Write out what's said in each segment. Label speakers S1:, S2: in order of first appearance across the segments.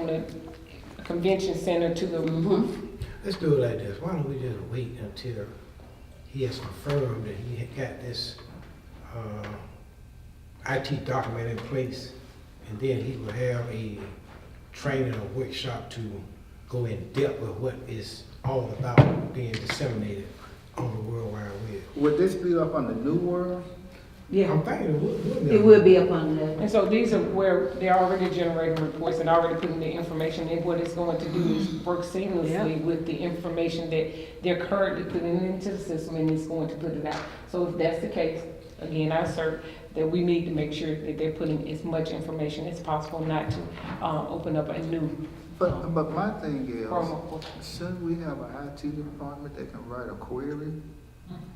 S1: the convention center to the
S2: Mm-hmm.
S1: roof.
S3: Let's do it like this, why don't we just wait until he has confirmed that he had got this, uh, IT document in place? And then he will have a training or workshop to go in depth with what is all about being disseminated on the World Wide Web.
S4: Would this be up on the new world?
S3: I'm
S2: Yeah,
S3: thinking it would, wouldn't it?
S2: it will be up on the,
S1: And so these are where they're already generating reports and already putting the information in. What it's going to do is
S2: Mm-hmm.
S1: work seamlessly with the information that they're currently putting into the system and it's going to put it out. So if that's the case, again, I assert that we need to make sure that they're putting as much information as possible, not to, um, open up a new
S4: But, but my thing
S1: promo. for-
S4: is, shouldn't we have an IT department that can write a query?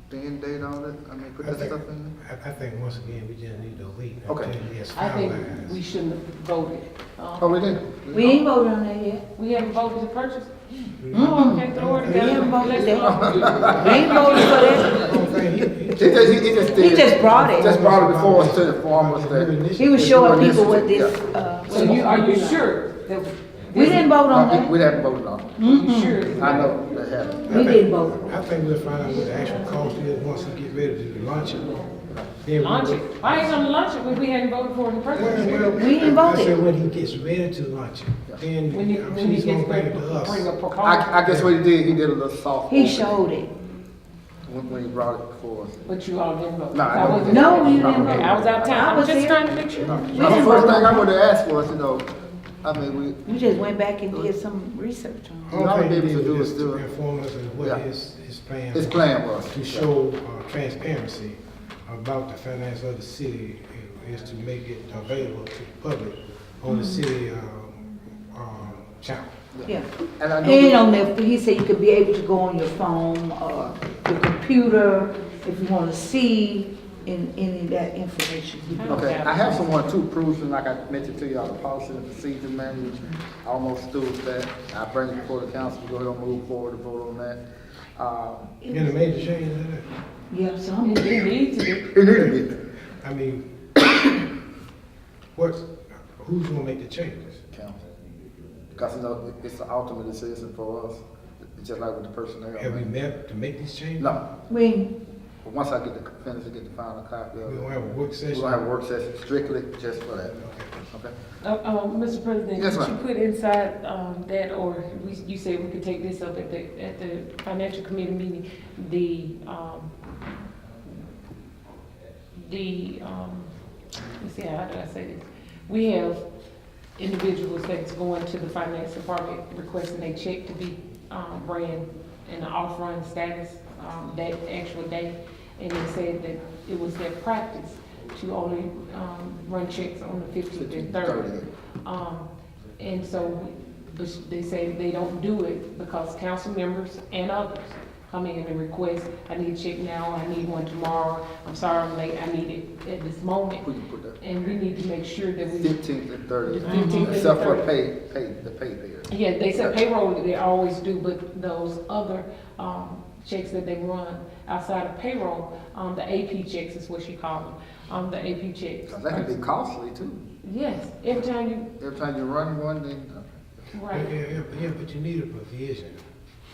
S4: Then date all that, I mean, put
S3: I
S4: that
S3: think-
S4: stuff in?
S3: I, I think once again, we just need to wait until
S4: Okay.
S3: he has
S1: I think we
S3: finalized.
S1: shouldn't have voted. Um,
S4: Oh, we didn't?
S2: we ain't voted on that yet.
S1: We haven't voted to purchase.
S2: Mm-mm.
S1: Okay, throw it
S2: Oh. We haven't
S1: together. Let's
S2: voted that.
S1: vote.
S2: We ain't voted for that.
S3: I don't think he- he-
S4: He just, he just
S2: He
S4: did.
S2: just brought it.
S4: Just brought it before us to inform us that.
S2: He was showing people what this, uh.
S1: So you, are you sure that?
S2: We didn't vote on
S4: Uh,
S2: that.
S4: We we haven't voted on it.
S1: You sure? it's
S4: I
S1: not-
S4: know that happened.
S2: We didn't vote.
S3: I think we'll find out what the actual cost is once he get ready to launch it. Then we
S1: Launch
S3: will-
S1: it. I ain't gonna launch it when we hadn't voted for it in the first
S3: Well,
S1: place.
S3: well,
S2: We didn't
S3: I
S2: vote it.
S3: said when he gets ready to launch it, then
S1: When you, when you
S3: he's gonna
S1: get
S3: bring
S1: ready
S3: it
S1: to
S3: to
S1: bring a
S3: us.
S4: I,
S1: proposal,
S4: I guess what he did, he did a little soft.
S2: He
S4: opening
S2: showed it.
S4: When, when he brought it before us.
S1: but you all didn't vote.
S4: No, I
S1: I
S4: don't-
S1: wasn't-
S2: No, you didn't vote.
S1: I was out of
S2: I
S1: town. I'm
S2: was
S1: just
S2: here.
S1: trying to make sure.
S4: Now, the
S2: didn't
S4: first
S2: vote
S4: thing
S2: on
S4: I would have asked was, you know, I mean, we,
S2: We just went back and did some research on
S3: All
S4: All
S3: thing
S4: they
S3: he
S4: was to
S3: did
S4: do
S3: was
S4: was
S3: to
S4: do it.
S3: inform us of
S4: Yeah.
S3: what his, his plan.
S4: his plan was.
S3: To show uh, transparency about the finance of the city uh, is to make it available to the public
S2: Mm-hmm.
S3: on the city, um, um, channel.
S2: it, yeah.
S4: And I know. we-
S2: And on the, he said you could be able to go on your phone or your computer if you wanna see in, any of that information.
S4: Okay, I have someone too, Prusen, like I mentioned to y'all, the policy and procedure manual, I almost through with that. I bring it before the council, we go ahead and move forward to vote on that. Uh,
S3: And a major change in that.
S2: Yeah, some,
S1: It it needs to be.
S4: It needed to
S3: I mean, what, who's gonna make the changes?
S4: be, council. Because you know, it's the ultimate decision for us, It's just like with the personnel.
S3: Have we met to make these changes?
S4: No,
S2: we,
S4: but once I get the, finish and get the final copy
S3: We
S4: of
S3: don't
S4: it,
S3: have a work
S4: we're
S3: session?
S4: gonna have a work session strictly just for that,
S3: Okay.
S4: okay?
S1: Uh, uh, Mr. President,
S4: Yes,
S1: could you
S4: ma'am.
S1: put inside, um, that, or we, you said we could take this up at the, at the financial committee meeting, the, um, the, um, let's see, how did I say this? We have individuals that's going to the finance department requesting a check to be, um, ran in an off-run status, um, that actual day. And they said that it was their practice to only, um, run checks on the fifteenth and thirtieth. Um, and so, but they say they don't do it because council members and others come in and request, I need a check now, I need one tomorrow, I'm sorry I'm late, I need it at this moment.
S4: Who you put that?
S1: And we need to make sure that we,
S4: Fifteenth and
S1: the
S4: thirtieth,
S1: fifteenth and the
S4: except for
S1: 30th.
S4: pay, pay, the pay period.
S1: Yeah, they said payroll, they always do, but those other, um, checks that they run outside of payroll, um, the AP checks is what she called them, um, the AP checks.
S4: Because that can be costly too.
S1: Yes, every time you,
S4: Every time you run one, then,
S3: Yeah,
S1: right.
S3: yeah, yeah, yeah, but you need a provision,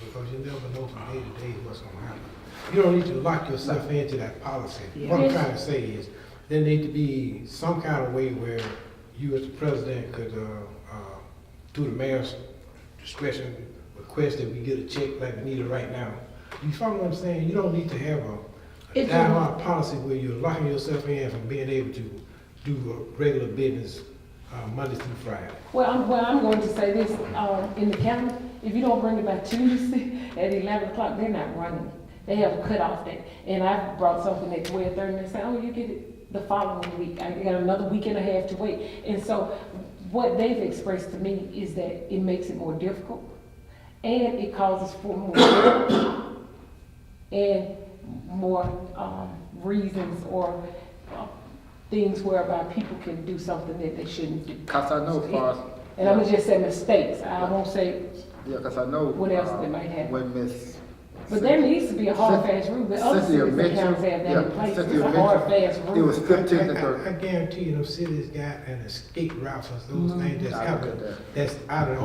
S3: because you never know from day to day what's gonna happen. You don't need to lock yourself into that policy. What I'm
S1: Yes.
S3: trying to say is, there need to be some kind of way where you as the president could, uh, uh, through the mayor's discretion, request that we get a check like we need it right now. You follow what I'm saying? You don't need to have a- a
S2: It's a-
S3: diehard policy where you're locking yourself in from being able to do a regular business, uh, Monday through Friday.
S1: Well, I'm, well, I'm going to say this, um, in the county, if you don't bring it by Tuesday at eleven o'clock, they're not running. They have a cutoff date, and I brought something at twelve thirty, and they said, oh, you get it the following week, I got another week and a half to wait. And so, what they've expressed to me is that it makes it more difficult, and it causes for more, and more, um, reasons or, uh, things whereby people can do something that they shouldn't do.
S4: because I know as far as.
S1: And I'm gonna just say mistakes, I won't say,
S4: Yeah, because I know.
S1: What else
S4: uh,
S1: they might have?
S4: When Miss
S1: But there needs to be a hard, fast rule, but other
S4: Cynthia
S1: cities and
S4: mentioned-
S1: towns have that
S4: yeah,
S1: in place, it's
S4: Cynthia
S1: a hard,
S4: mentioned
S1: fast
S4: It
S1: rule.
S4: was fifteen to
S3: I- I-
S4: thirty.
S3: I guarantee you, those cities got an escape route for those things that's
S4: I
S3: out
S4: look at
S3: there,
S4: that.
S3: that's out of the